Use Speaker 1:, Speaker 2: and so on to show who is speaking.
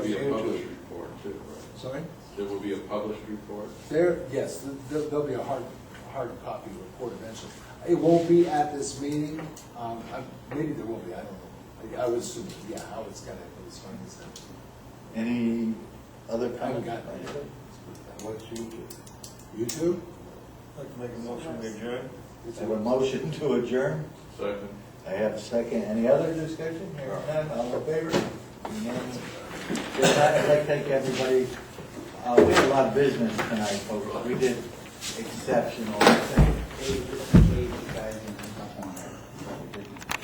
Speaker 1: Sorry?
Speaker 2: There will be a published report.
Speaker 1: There, yes, th- there- there'll be a hard, hard copy report eventually. It won't be at this meeting, um, I- maybe there will be, I don't know. I I would assume, yeah, I was gonna, it was funny, so.
Speaker 3: Any other
Speaker 1: I haven't
Speaker 3: comments?
Speaker 1: gotten it.
Speaker 3: What's you do?
Speaker 1: YouTube?
Speaker 4: I'd like to make a motion to adjourn.
Speaker 1: It's
Speaker 3: I have a motion to adjourn.
Speaker 2: Second.
Speaker 3: I have a second. Any other discussion? Here none, all in favor? Unanimous. Good night. I'd like to thank everybody. Uh, we had a lot of business tonight, folks. We did exceptional. Thank you guys and